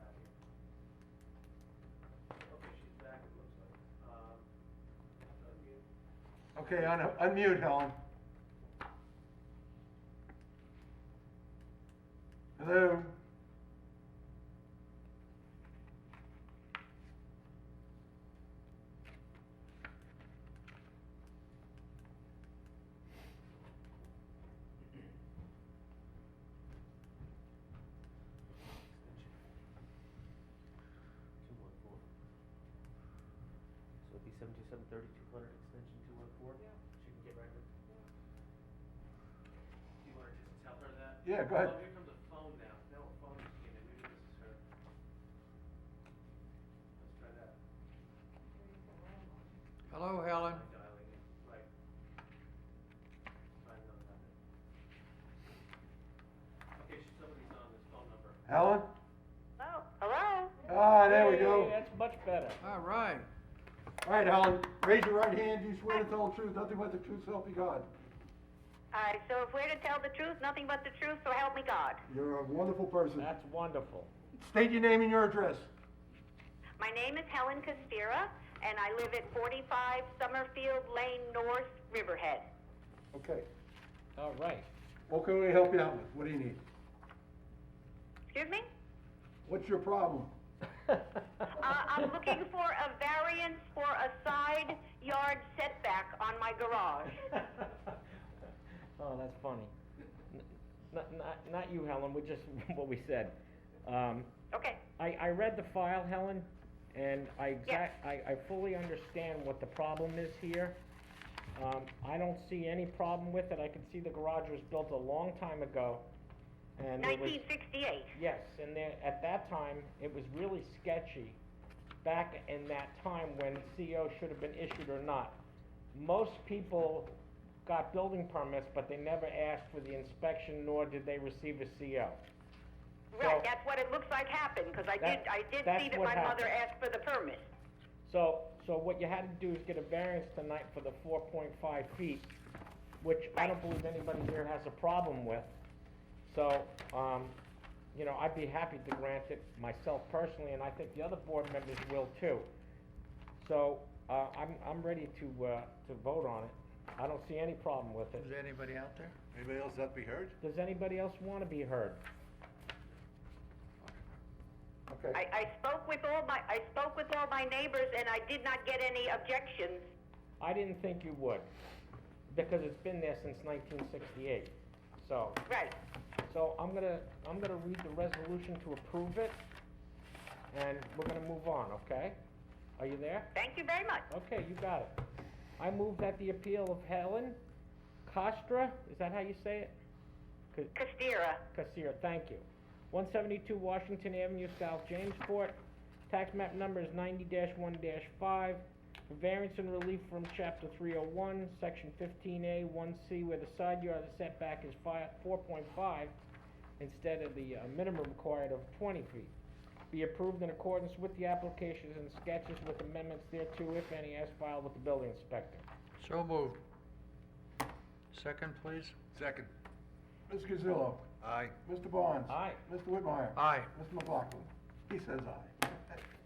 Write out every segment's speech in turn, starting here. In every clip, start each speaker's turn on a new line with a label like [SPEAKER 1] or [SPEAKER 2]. [SPEAKER 1] Um, uh,
[SPEAKER 2] Okay, un- unmute Helen. Hello?
[SPEAKER 1] Two one four. So it'd be seven two seven thirty, two hundred, extension two one four? Yeah. She can get right with. Do you wanna just tell her that?
[SPEAKER 2] Yeah, go ahead.
[SPEAKER 1] Oh, here comes a phone now, now a phone just came in, maybe this is her. Let's try that.
[SPEAKER 3] Hello, Helen.
[SPEAKER 1] By dialing in, right. Find another number. Okay, she- somebody's on this phone number.
[SPEAKER 2] Helen?
[SPEAKER 4] Hello? Oh, Hello?
[SPEAKER 2] Ah, there we go.
[SPEAKER 5] That's much better.
[SPEAKER 3] All right.
[SPEAKER 2] All right, Helen, raise your right hand. Do you swear to tell the truth, nothing but the truth, so help you God?
[SPEAKER 4] All right, so if we're to tell the truth, nothing but the truth, so help me God.
[SPEAKER 2] You're a wonderful person.
[SPEAKER 5] That's wonderful.
[SPEAKER 2] State your name and your address.
[SPEAKER 4] My name is Helen Costera, and I live at 45 Summerfield Lane North, Riverhead.
[SPEAKER 2] Okay.
[SPEAKER 5] All right.
[SPEAKER 2] What can we help you out with? What do you need?
[SPEAKER 4] Excuse me?
[SPEAKER 2] What's your problem?
[SPEAKER 4] Uh, I'm looking for a variance for a side yard setback on my garage.
[SPEAKER 5] Oh, that's funny. N- Not, not, not you, Helen, we just, what we said. Um,
[SPEAKER 4] Okay,
[SPEAKER 5] I, I read the file, Helen, and I
[SPEAKER 4] Yes.
[SPEAKER 5] exact, I, I fully understand what the problem is here. Um, I don't see any problem with it, I can see the garage was built a long time ago, and it was.
[SPEAKER 4] 1968.
[SPEAKER 5] Yes, and there, at that time, it was really sketchy, back in that time when CO should have been issued or not. Most people got building permits, but they never asked for the inspection, nor did they receive a E CO.
[SPEAKER 4] Right,
[SPEAKER 5] So-
[SPEAKER 4] that's what it looks like happened, because I did,
[SPEAKER 5] That-
[SPEAKER 4] I did
[SPEAKER 5] that's
[SPEAKER 4] see that
[SPEAKER 5] what
[SPEAKER 4] my mother
[SPEAKER 5] happened.
[SPEAKER 4] asked for the permit.
[SPEAKER 5] So, so what you had to do is get a variance tonight for the four point five feet, which I don't believe anybody here has a problem with. So, um, you know, I'd be happy to grant it myself personally, and I think the other board members will too. So, uh, I'm, I'm ready to, uh, to vote on it. I don't see any problem with
[SPEAKER 3] Is
[SPEAKER 5] it.
[SPEAKER 3] there anybody out there?
[SPEAKER 2] Anybody else that be heard?
[SPEAKER 5] Does anybody else wanna be heard?
[SPEAKER 2] Okay.
[SPEAKER 4] I, I spoke with all my, I spoke with all my neighbors, and I did not get any objections.
[SPEAKER 5] I didn't think you would, because it's been there since nineteen sixty-eight, so.
[SPEAKER 4] Right.
[SPEAKER 5] So I'm gonna, I'm gonna read the resolution to approve it, and we're gonna move on, okay? Are you there?
[SPEAKER 4] Thank you very much.
[SPEAKER 5] Okay, you got it. I move that the appeal of Helen Costra, is that how you say it? Ca-
[SPEAKER 4] Castira,
[SPEAKER 5] Casir, thank you. One seventy-two Washington Avenue, South Jamesport. Tax map number is ninety one five. For variance and relief from chapter three oh one, section fifteen A, one C, where the side yard setback is five, four point five instead of the uh, minimum required of twenty feet. Be approved in accordance with the applications and sketches with amendments thereto, if any, as filed with the building inspector.
[SPEAKER 3] So moved. Second, please.
[SPEAKER 6] Second.
[SPEAKER 2] Ms. Gazillo?
[SPEAKER 6] Aye.
[SPEAKER 2] Mr. Barnes?
[SPEAKER 5] Aye.
[SPEAKER 2] Mr. Whitmire?
[SPEAKER 3] Aye.
[SPEAKER 2] Mr. McLaughlin? He says aye.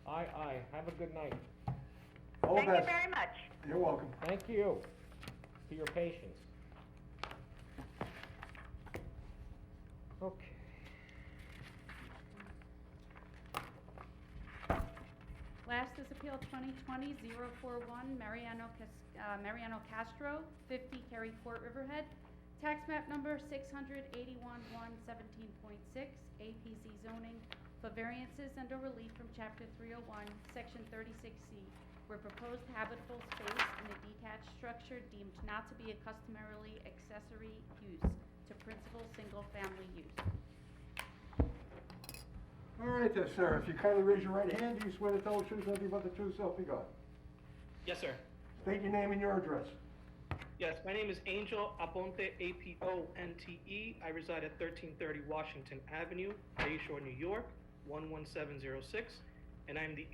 [SPEAKER 5] Aye, aye. Have a good night.
[SPEAKER 2] All the
[SPEAKER 4] thank you
[SPEAKER 2] best.
[SPEAKER 4] very much.
[SPEAKER 2] You're welcome.
[SPEAKER 5] Thank you for your patience. Okay.
[SPEAKER 7] Last is Appeal 2020-041, Mariano Cas- uh, Mariano Castro, 50 Cary Court, Riverhead. Tax map number 681-117.6, APZ zoning for variances and or relief from Chapter 301, Section 36C, where proposed habitable space in a detached structure deemed not to be a customarily accessory use to principal single-family use.
[SPEAKER 2] All right then, sir, if you kindly raise your right hand, do you swear to tell the truth, nothing but the truth, so help you God?
[SPEAKER 8] Yes, sir.
[SPEAKER 2] State your name and your address.
[SPEAKER 8] Yes, my name is Angel Aponte, A-P-O-N-T-E. E. I reside at 1330 Washington Avenue, Bayshore, New York, 11706, and I'm the